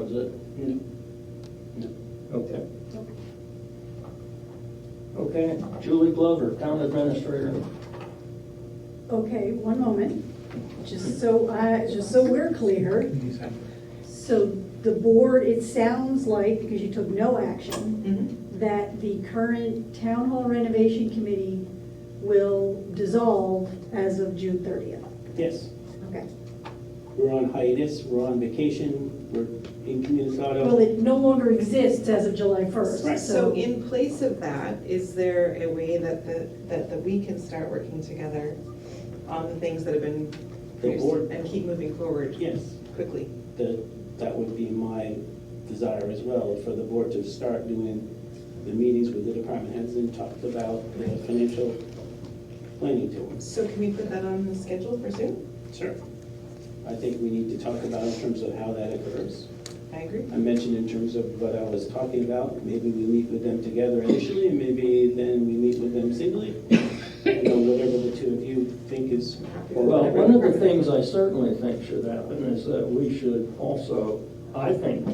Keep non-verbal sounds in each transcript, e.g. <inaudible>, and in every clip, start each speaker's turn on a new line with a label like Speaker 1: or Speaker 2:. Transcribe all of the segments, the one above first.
Speaker 1: it?
Speaker 2: No.
Speaker 1: Okay. Okay, Julie Glover, Town Administrator.
Speaker 2: Okay, one moment, just so I, just so we're clear. So the board, it sounds like, because you took no action, that the current town hall renovation committee will dissolve as of June thirtieth.
Speaker 3: Yes,
Speaker 2: Okay.
Speaker 3: we're on hiatus, we're on vacation, we're in
Speaker 2: Well,
Speaker 3: Communicado.
Speaker 2: it no longer exists as of July first,
Speaker 3: Right.
Speaker 2: so.
Speaker 4: So in place of that, is there a way that the, that the we can start working together on the things that have been produced
Speaker 3: board-
Speaker 4: and keep moving forward
Speaker 3: Yes,
Speaker 4: quickly?
Speaker 3: that, that would be my desire as well, for the board to start doing the meetings with the department heads and talk about the financial planning to them.
Speaker 4: So can we put that on the schedule for soon?
Speaker 3: Sure. I think we need to talk about in terms of how that occurs.
Speaker 4: I agree.
Speaker 3: I mentioned in terms of what I was talking about, maybe we meet with them together initially, and maybe then we meet with them singly. You know, whatever the two of you think is,
Speaker 1: Well, one of the things I certainly think should happen is that we should also, I think,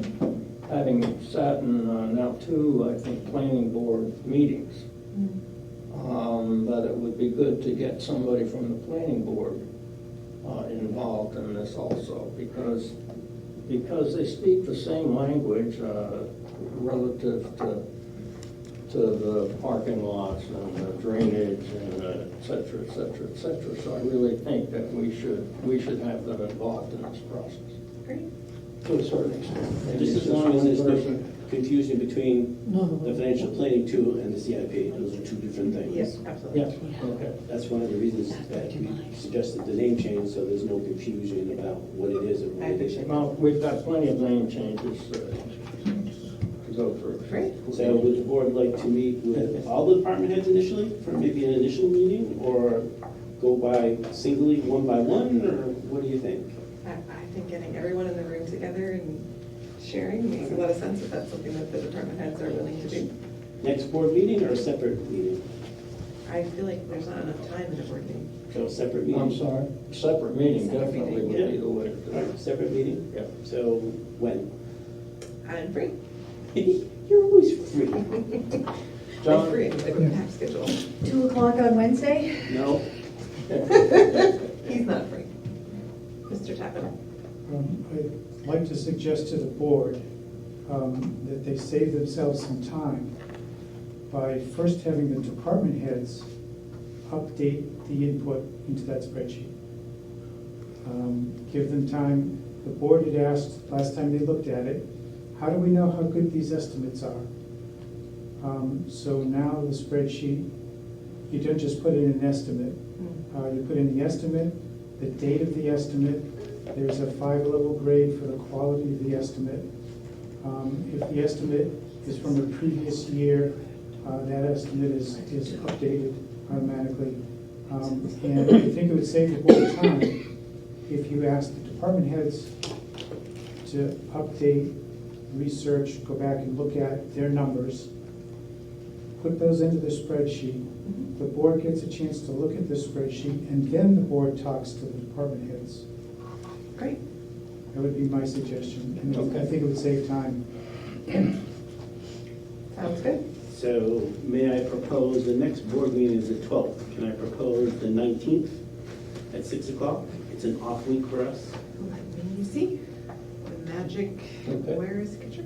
Speaker 1: having sat in uh, now two, I think, planning board meetings, um, that it would be good to get somebody from the planning board uh, involved in this also, because, because they speak the same language uh, relative to, to the parking lots and the drainage and uh, et cetera, et cetera, et cetera. So I really think that we should, we should have them involved in this process.
Speaker 4: Great.
Speaker 1: To a certain extent. Maybe
Speaker 3: just
Speaker 1: it's
Speaker 3: as long as
Speaker 1: one
Speaker 3: there's no
Speaker 1: person.
Speaker 3: confusion between the financial planning tool and the CIP, those are two different things.
Speaker 4: Yes, absolutely.
Speaker 1: Yes, okay.
Speaker 3: That's one of the reasons that we suggested the name change, so there's no confusion about what it is and what it isn't.
Speaker 1: Well, we've got plenty of name changes uh, to go through.
Speaker 4: Great.
Speaker 3: So would the board like to meet with all the department heads initially for maybe an initial meeting? Or go by singly, one by one, or what do you think?
Speaker 4: I, I think getting everyone in the room together and sharing makes a lot of sense if that's something that the department heads are willing to do.
Speaker 3: Next board meeting or a separate meeting?
Speaker 4: I feel like there's not enough time in a board meeting.
Speaker 3: So separate
Speaker 1: I'm
Speaker 3: meeting.
Speaker 1: sorry? Separate meeting
Speaker 4: Separate
Speaker 1: definitely
Speaker 4: meeting,
Speaker 1: would be the way to do
Speaker 3: All
Speaker 1: it.
Speaker 3: right, separate meeting?
Speaker 1: Yeah.
Speaker 3: So when? <laughs>
Speaker 4: I'm free. <laughs>
Speaker 3: You're always free.
Speaker 4: I'm
Speaker 1: John?
Speaker 4: free, I have a packed schedule.
Speaker 2: Two o'clock on Wednesday?
Speaker 3: No?
Speaker 4: He's not free. Mr. Tappan.
Speaker 5: Um, I'd like to suggest to the board um, that they save themselves some time by first having the department heads update the input into that spreadsheet. Um, Give them time, the board had asked, last time they looked at it, how do we know how good these estimates are? Um, So now the spreadsheet, you don't just put in an estimate,
Speaker 4: Mm.
Speaker 5: uh, You put in the estimate, the date of the estimate, there's a five-level grade for the quality of the estimate. Um, If the estimate is from a previous year, uh, that estimate is, is updated automatically. Um, And I think it would save the board time if you asked the department heads to update, research, go back and look at their numbers, put those into the spreadsheet, the board gets a chance to look at the spreadsheet, and then the board talks to the department heads.
Speaker 4: Great.
Speaker 5: That would be my suggestion, and I
Speaker 1: Okay.
Speaker 5: think it would save time.
Speaker 4: Sounds good.
Speaker 3: So may I propose, the next board meeting is the 12th. Can I propose the 19th at 6 o'clock? It's an off week for us.
Speaker 4: Let me see. The magic,
Speaker 1: Okay. Hmm.
Speaker 4: where is Kitcher?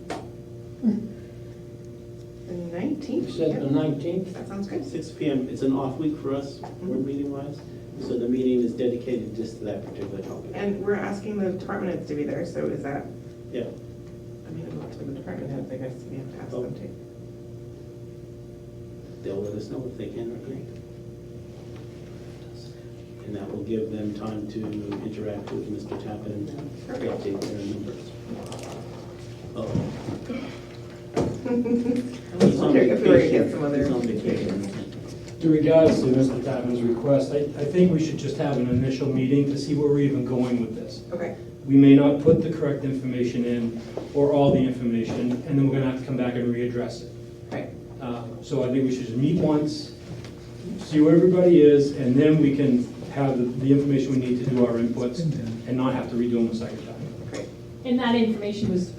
Speaker 4: The nineteenth.
Speaker 1: You said the nineteenth?
Speaker 4: That sounds good.
Speaker 3: 6 PM, it's an off week for us,
Speaker 4: Mm-hmm.
Speaker 3: board meeting wise, so the meeting is dedicated just to that particular topic.
Speaker 4: And we're asking the department heads to be there, so is that,
Speaker 3: Yeah,
Speaker 4: I mean, I'm not to the department heads, I guess we have to ask them to.
Speaker 1: Oh.
Speaker 3: they'll let us know if they can or can't. And that will give them time to interact with Mr. Tappan and update their numbers.
Speaker 4: <laughs>
Speaker 3: Oh,
Speaker 4: I was
Speaker 3: he's on
Speaker 4: wondering if we were gonna
Speaker 3: vacation.
Speaker 4: get some other.
Speaker 3: He's on vacation.
Speaker 6: In regards to Mr. Tappan's request, I, I think we should just have an initial meeting to see where we're even going with this.
Speaker 4: Okay,
Speaker 6: We may not put the correct information in, or all the information, and then we're gonna have to come back and readdress it.
Speaker 4: right.
Speaker 6: Uh, So I think we should just meet once, see where everybody is, and then we can have the- the information we need to do our inputs, and not have to redo them a second time.
Speaker 7: And that information was